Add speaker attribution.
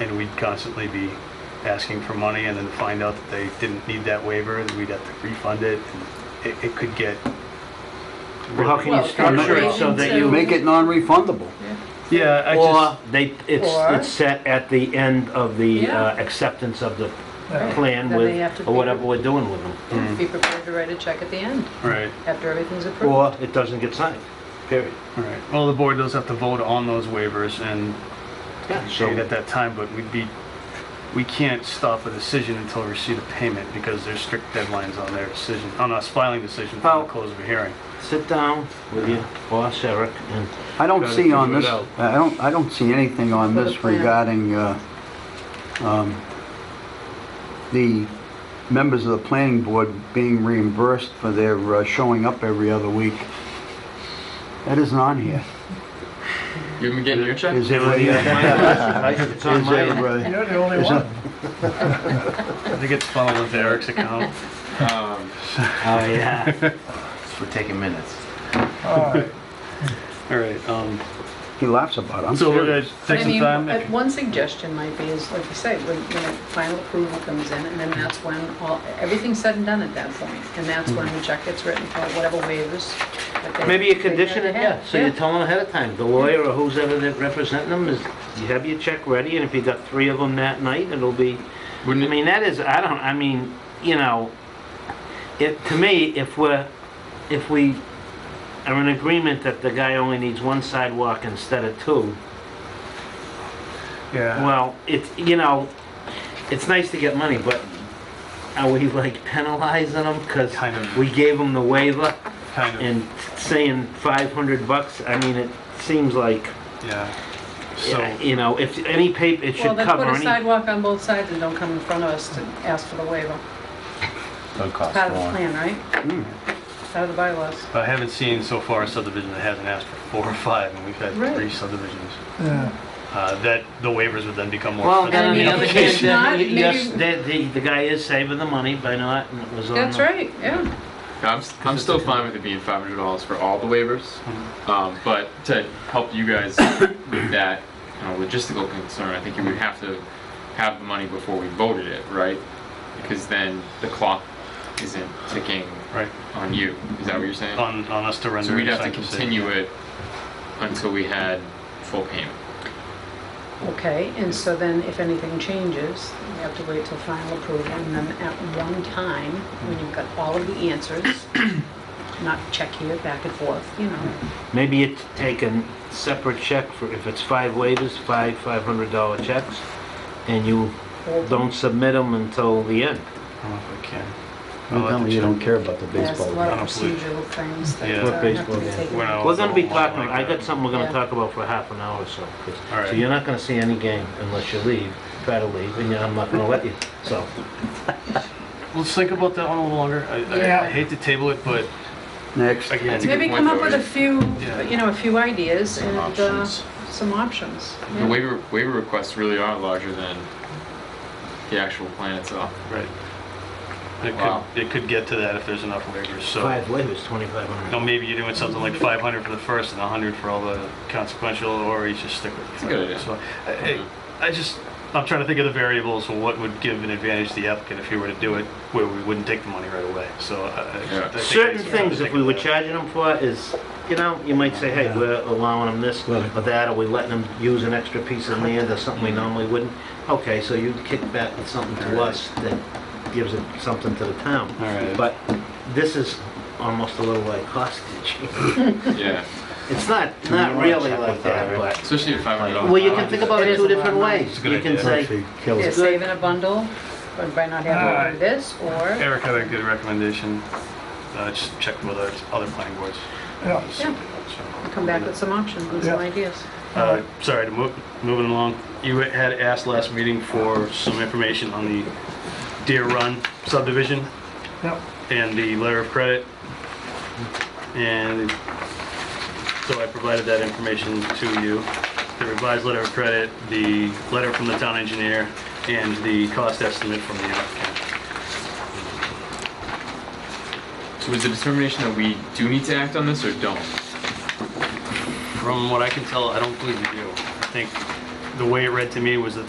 Speaker 1: and we'd constantly be asking for money and then find out that they didn't need that waiver, and we'd have to refund it. and It, it could get.
Speaker 2: Well, how
Speaker 1: really-
Speaker 2: can you
Speaker 3: Well,
Speaker 2: structure it so that you,
Speaker 3: Relation
Speaker 4: Make it non-refundable.
Speaker 1: Yeah, I
Speaker 2: or
Speaker 1: just,
Speaker 2: they, it's,
Speaker 3: Or-
Speaker 2: it's set at the end of the
Speaker 3: Yeah.
Speaker 2: uh, acceptance of the
Speaker 3: Right.
Speaker 2: plan
Speaker 3: Then
Speaker 2: with,
Speaker 3: they have to
Speaker 2: or
Speaker 3: be-
Speaker 2: whatever we're doing with them.
Speaker 3: Be prepared to write a check at the end,
Speaker 2: uh,
Speaker 1: right,
Speaker 3: after everything's approved.
Speaker 2: Or it doesn't get signed, period.
Speaker 1: right. Well, the board does have to vote on those waivers and
Speaker 2: Yeah,
Speaker 1: paid at
Speaker 2: so,
Speaker 1: that time, but we'd be, we can't stop a decision until we receive a payment because there's strict deadlines on their decision, on us filing decision from
Speaker 2: Well-
Speaker 1: the close of a hearing.
Speaker 2: sit down with your boss, Eric, and
Speaker 4: I don't
Speaker 2: Gotta
Speaker 4: see on
Speaker 2: figure it
Speaker 4: this,
Speaker 2: out.
Speaker 4: I don't, I don't see anything on
Speaker 3: For the
Speaker 4: this
Speaker 3: plan.
Speaker 4: regarding, uh, um, the members of the planning board being reimbursed for their uh, showing up every other week. That isn't on here.
Speaker 5: You been getting your check?
Speaker 4: Is it?
Speaker 2: It's on
Speaker 4: Is
Speaker 2: my
Speaker 4: it,
Speaker 2: list.
Speaker 4: uh,
Speaker 6: You're the only one.
Speaker 1: I think it's funneled into Eric's account.
Speaker 5: Um,
Speaker 2: Oh, yeah.
Speaker 5: We're taking minutes.
Speaker 6: All right.
Speaker 1: All right, um,
Speaker 4: uh, He laughs about it. I'm
Speaker 1: so we're
Speaker 4: serious.
Speaker 1: gonna take
Speaker 3: I
Speaker 1: some
Speaker 3: mean,
Speaker 1: time.
Speaker 3: uh, One suggestion might be is, like you say, when, when the final approval comes in, and then that's when all, everything's said and done at that point, And that's when the check gets written for whatever waivers. that they-
Speaker 2: Mm. Maybe you condition it,
Speaker 3: they
Speaker 2: yeah,
Speaker 3: have.
Speaker 2: so you tell them ahead of time, the lawyer or who's ever that representing them is, you have your check ready, and if you got three of them that night, it'll be, I
Speaker 5: Wouldn't it,
Speaker 2: mean, that is, I don't, I mean, you know, it, to me, if we're, if we are in agreement that the guy only needs one sidewalk instead of two,
Speaker 1: Yeah.
Speaker 2: Well, it's, you know, it's nice to get money, but are we like penalizing them? Because
Speaker 1: Kind of.
Speaker 2: we gave them the waiver
Speaker 1: Kind of,
Speaker 2: and saying 500 bucks, I mean, it seems like,
Speaker 1: yeah. So,
Speaker 2: you know, if any paper, it
Speaker 3: Well,
Speaker 2: should
Speaker 3: then
Speaker 2: cover
Speaker 3: put a
Speaker 2: any.
Speaker 3: sidewalk on both sides and don't come in front of us to ask for the waiver.
Speaker 5: it cost
Speaker 3: Part of the
Speaker 5: more.
Speaker 3: plan, right?
Speaker 2: Mm.
Speaker 3: Part of the bylaws.
Speaker 1: but I haven't seen so far a subdivision that hasn't asked for four or five, and we've had
Speaker 3: Right.
Speaker 1: three subdivisions.
Speaker 6: Yeah.
Speaker 1: Uh, that the waivers would then become more.
Speaker 2: Well,
Speaker 1: expensive.
Speaker 2: then on
Speaker 3: And
Speaker 2: the
Speaker 3: if
Speaker 2: other
Speaker 3: it's
Speaker 2: hand,
Speaker 3: not,
Speaker 2: then, y- yes,
Speaker 3: maybe-
Speaker 2: the, the- the guy is saving the money by not, and it was on.
Speaker 3: That's
Speaker 2: the-
Speaker 3: right, yeah.
Speaker 5: I'm, s- I'm still fine with it being five hundred dollars for all the waivers, um, but to help you guys with that you know, logistical concern, I think you would have to have the money before we voted it, right? Because then the clock isn't ticking
Speaker 1: Right,
Speaker 5: on you. Is that what you're saying?
Speaker 1: on, on us to render.
Speaker 5: So we'd
Speaker 1: a
Speaker 5: have to
Speaker 1: signed decision.
Speaker 5: continue it until we had full payment.
Speaker 3: Okay, and so then if anything changes, you have to wait till final approval, and then at one time, when you've got all of the answers, not check here, back and forth, you know.
Speaker 2: Maybe you take a separate check for, if it's five waivers, five $500 checks, and you
Speaker 3: or-
Speaker 2: don't submit them until the end.
Speaker 1: I don't know if I can. I'll
Speaker 4: Don't
Speaker 1: have
Speaker 4: tell
Speaker 1: to
Speaker 4: me you
Speaker 1: check.
Speaker 4: don't care about the
Speaker 3: There's a
Speaker 4: baseball.
Speaker 3: lot
Speaker 1: I
Speaker 3: of
Speaker 1: don't believe-
Speaker 3: procedural things that
Speaker 1: Yeah.
Speaker 3: uh, have to
Speaker 2: Baseball,
Speaker 3: be
Speaker 2: yeah.
Speaker 3: taken.
Speaker 1: When I
Speaker 3: into
Speaker 1: was
Speaker 2: We're gonna be
Speaker 1: Oh, a little
Speaker 2: talking,
Speaker 1: like
Speaker 2: I
Speaker 1: that.
Speaker 2: got something we're gonna
Speaker 3: Yeah.
Speaker 2: talk about for half an hour or so. 'cause-
Speaker 1: All right.
Speaker 2: So you're not gonna see any game unless you leave, try to leave, and I'm not gonna let you, so.
Speaker 1: Let's think about that one a little longer. I, I- I
Speaker 6: Yeah.
Speaker 1: hate to table it, but
Speaker 4: Next.
Speaker 1: again,
Speaker 5: That's a good
Speaker 3: Maybe
Speaker 5: point,
Speaker 3: come up with a
Speaker 5: Joey.
Speaker 3: few,
Speaker 1: Yeah.
Speaker 3: you know, a few ideas
Speaker 5: Some
Speaker 3: and uh,
Speaker 5: options.
Speaker 3: some options.
Speaker 5: The
Speaker 3: yeah.
Speaker 5: waiver, waiver requests really are larger than the actual plan itself.
Speaker 1: right. It
Speaker 5: Wow.
Speaker 1: could, it could get to that if there's enough waivers, so.
Speaker 2: Five waivers, twenty-five
Speaker 1: Now,
Speaker 2: hundred.
Speaker 1: maybe you're doing something like 500 for the first and 100 for all the consequential, or you just stick with. It's
Speaker 5: a good idea.
Speaker 1: So, I, I I just, I'm trying to think of the variables and what would give an advantage to the applicant if he were to do it, where we wouldn't take the money right away, so. I- I- I
Speaker 5: Yeah.
Speaker 1: think
Speaker 2: Certain
Speaker 1: it's-
Speaker 2: things, if we were charging them for, is, you know, you might say, hey, we're allowing them this or that, or we letting them use an extra piece of land or something we normally wouldn't. Okay, so you kick back with something to us that gives it something to the town.
Speaker 1: All right.
Speaker 2: But this is almost a little like hostage.
Speaker 5: Yeah,
Speaker 2: It's not, not really like that, but.
Speaker 5: especially at five hundred dollars.
Speaker 2: Well, you can think about
Speaker 3: It
Speaker 2: it
Speaker 3: is
Speaker 2: two
Speaker 3: a lot of
Speaker 2: different
Speaker 3: money.
Speaker 2: ways.
Speaker 1: a good
Speaker 2: You can
Speaker 1: idea.
Speaker 2: say,
Speaker 3: Yeah,
Speaker 2: Good.
Speaker 3: save in a bundle but by not having to do
Speaker 6: Alright.
Speaker 3: this, or,
Speaker 1: Eric had a good recommendation, uh, just check with other, other planning boards.
Speaker 6: Yeah.
Speaker 1: So-
Speaker 3: come back with some options and some
Speaker 6: Yeah.
Speaker 3: ideas.
Speaker 1: Uh, Sorry, to move- moving along, you had asked last meeting for some information on the Deer Run subdivision
Speaker 6: Yep.
Speaker 1: and the letter of credit. And so I provided that information to you, the revised letter of credit, the letter from the town engineer, and the cost estimate from the applicant.
Speaker 5: So was the determination that we do need to act on this or don't?
Speaker 1: From what I can tell, I don't believe you do. I think the way it read to me was that